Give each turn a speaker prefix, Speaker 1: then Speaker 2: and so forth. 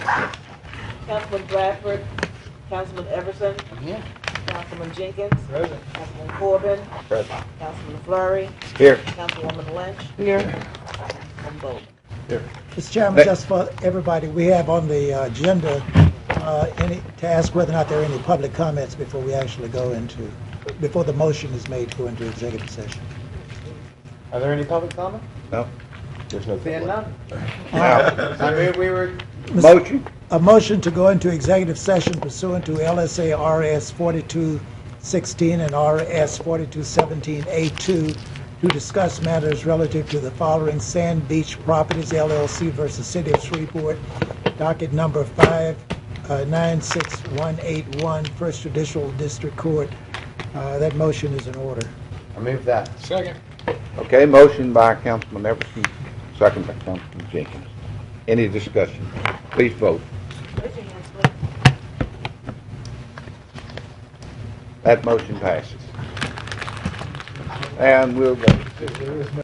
Speaker 1: Councilman Bradford, Councilman Everson,
Speaker 2: Yeah.
Speaker 1: Councilman Jenkins, Councilman Corbin,
Speaker 2: Present.
Speaker 1: Councilman Flurry,
Speaker 2: Here.
Speaker 1: Councilwoman Lynch,
Speaker 3: Here.
Speaker 1: Councilman Bowman.
Speaker 4: Mr. Chairman,
Speaker 2: Thank-
Speaker 4: just for everybody, we have on the uh, agenda, uh, any, to ask whether or not there are any public comments before we actually go into, before the motion is made to go into executive session.
Speaker 5: Are there any public comment?
Speaker 2: No. There's no.
Speaker 5: Seeing none.
Speaker 2: Now,
Speaker 5: I move we were,
Speaker 4: Mr.
Speaker 2: Motion.
Speaker 4: A motion to go into executive session pursuant to LSA RS 4216 and RS 4217A2 to discuss matters relative to the following Sand Beach Properties LLC versus City of Shreveport, docket number uh, 596181, First Judicial District Court. Uh, That motion is in order.
Speaker 5: I move that.
Speaker 2: Okay, motion by Councilman Everson, second by Councilman Jenkins. Any discussion? Please vote.
Speaker 1: Raise your hands, please.
Speaker 2: That motion passes. And we'll go.